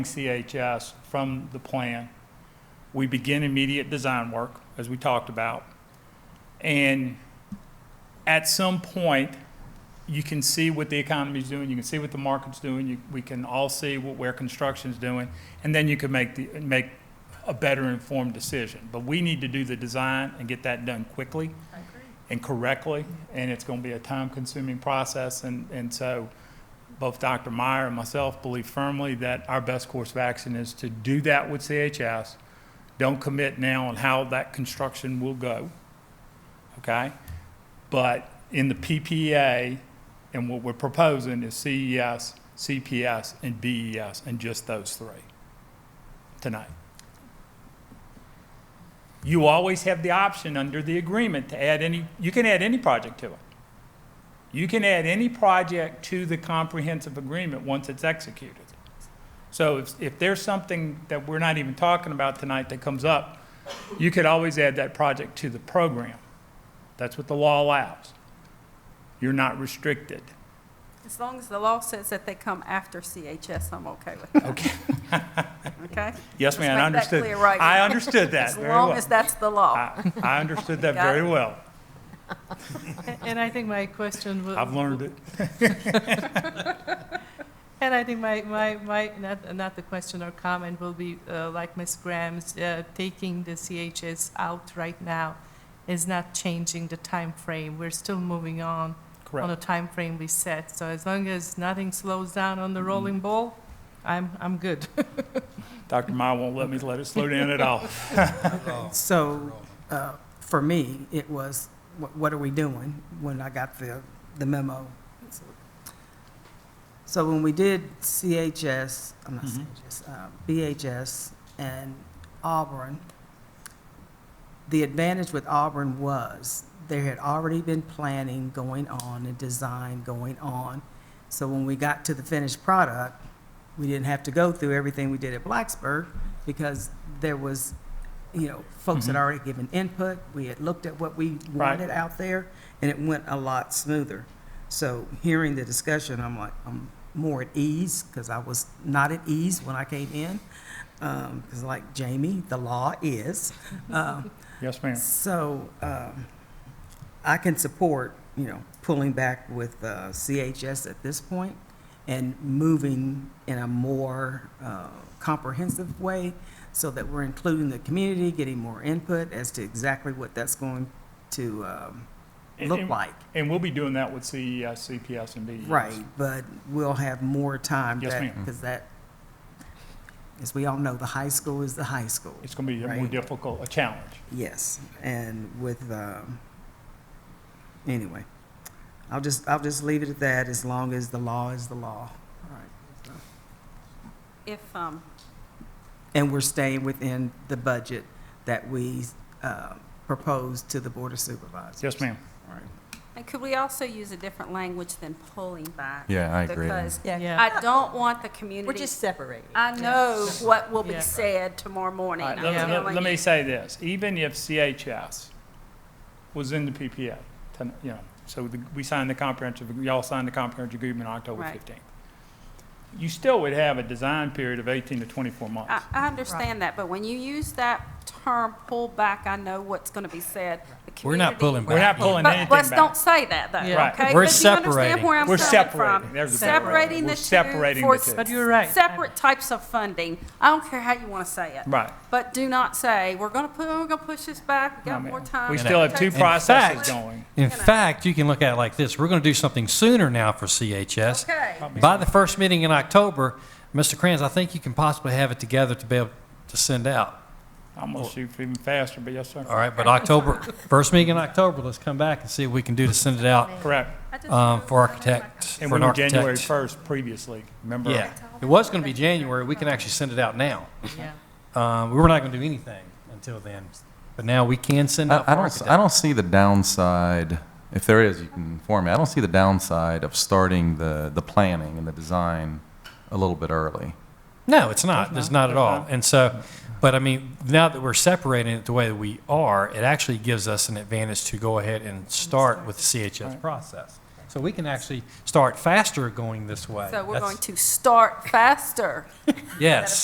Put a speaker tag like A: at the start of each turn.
A: CHS from the plan. We begin immediate design work, as we talked about. And at some point, you can see what the economy's doing, you can see what the market's doing, you, we can all see what, where construction's doing, and then you can make the, make a better informed decision. But we need to do the design and get that done quickly and correctly, and it's gonna be a time-consuming process, and, and so both Dr. Meyer and myself believe firmly that our best course of action is to do that with CHS. Don't commit now on how that construction will go, okay? But in the PPA, and what we're proposing is E CES, CPS, and BES, and just those three tonight. You always have the option under the agreement to add any, you can add any project to it. You can add any project to the comprehensive agreement once it's executed. So if, if there's something that we're not even talking about tonight that comes up, you could always add that project to the program. That's what the law allows. You're not restricted.
B: As long as the law says that they come after CHS, I'm okay with that,
A: Okay.
B: okay?
A: Yes, ma'am, I
B: Let's
A: understood.
B: make that clear right
A: I
B: now.
A: understood that
B: As
A: very
B: long
A: well.
B: as that's the law.
A: I, I understood that
B: Got
A: very
B: it.
A: well.
C: And I think my question was.
A: I've learned it.
C: And I think my, my, my, not, not the question or comment will be, uh, like Ms. Graham's, uh, taking the CHS out right now is not changing the time frame. We're still moving on, on the
A: Correct.
C: time frame we set. So as long as nothing slows down on
A: Mm-hmm.
C: the rolling ball, I'm, I'm good.
A: Dr. Meyer won't let me let it slow down at all.
D: So, uh, for me, it was, wh- what are we doing when I got the, the memo? So when we did CHS, I'm not
A: Mhm.
D: CHS, uh, BHS and Auburn, the advantage with Auburn was there had already been planning going on and design going on. So when we got to the finished product, we didn't have to go through everything we did at Blacksburg because there was, you know, folks had
A: Mhm.
D: already given input. We had looked at what we
A: Right.
D: wanted out there and it went a lot smoother. So hearing the discussion, I'm like, I'm more at ease because I was not at ease when I came in. Because like Jamie, the law is. Um,
A: Yes, ma'am.
D: so um, I can support, you know, pulling back with uh, CHS at this point and moving in a more uh, comprehensive way so that we're including the community, getting more input as to exactly what that's going to um, look
A: And-
D: like.
A: And we'll be doing that with E CES, CPS, and BES.
D: Right, but we'll have more time.
A: Yes, ma'am.
D: Because that, as we all know, the high school is the high school.
A: It's going to be a more
D: Right.
A: difficult, a challenge.
D: Yes, and with, um, anyway, I'll just, I'll just leave it at that as long as the law is the law.
B: If, um,
D: And we're staying within the budget that we, uh, proposed to the Board of Supervisors.
A: Yes, ma'am.
D: All right.
B: and could we also use a different language than pulling back?
E: Yeah, I agree.
B: Because
C: Yeah.
B: I don't want the community.
F: We're just separating.
B: I know what will be
C: Yeah.
B: said tomorrow morning.
A: All right,
B: I'm
A: let-
C: Yeah.
A: let-
B: telling
A: let me
B: you.
A: say this, even if CHS was in the PPA, ten- you know, so the- we signed the comprehensive, y'all signed the comprehensive agreement on October
B: Right.
A: 15th, you still would have a design period of 18 to 24
B: I,
A: months.
B: I understand that, but when you use that term pull back, I know what's going to be said. The
G: We're
B: community-
G: not pulling back.
A: We're not
G: yet.
A: pulling
B: But
A: anything
B: let's don't
A: back.
B: say that though,
C: Yeah.
A: Right.
B: okay?
G: We're
B: But do you understand
G: separating.
B: where I'm
A: We're
B: coming
A: separating.
B: from?
A: There's the
C: big word.
B: Separating
A: We're
B: the
A: separating
B: two
A: the
B: for
A: two.
C: But you're right.
B: separate types of funding. I don't care how you want to say it.
A: Right.
B: But do not say, we're going to put, we're going to push this back, we
A: No,
B: got
A: ma'am.
B: more time.
A: We
B: It
A: still have
B: takes
A: two
B: time.
A: processes
B: Let's-
A: going.
B: you
G: In
B: know.
G: fact, you can look at it like this. We're going to do something sooner now for CHS.
B: Okay.
G: By the first meeting in October, Mr. Kranz, I think you can possibly have it together to be able to send out.
A: I'm going to shoot even faster, but yes, sir.
G: All right, but October, first meeting in October, let's come back and see what we can do to send it out
A: Correct.
B: I just-
G: um, for architects,
A: And
G: for
A: we
G: an
A: were January
G: architect.
A: 1st previously, remember?
G: Yeah. It was going to be January. We can actually send it out now.
C: Yeah.
G: Um, We were not going to do anything until then, but now we can send out for
E: I, I don't. s-
G: architects.
E: I don't see the downside. If there is, you can inform me. I don't see the downside of starting the the planning and the design a little bit early.
G: No, it's not. It's not at
A: It's
G: all.
A: not.
G: And so, but I mean, now that we're separating it the way that we are, it actually gives us an advantage to go ahead and start with the CHS process. So we can actually start faster going this way.
B: So we're
G: That's-
B: going to start faster.
G: Yes.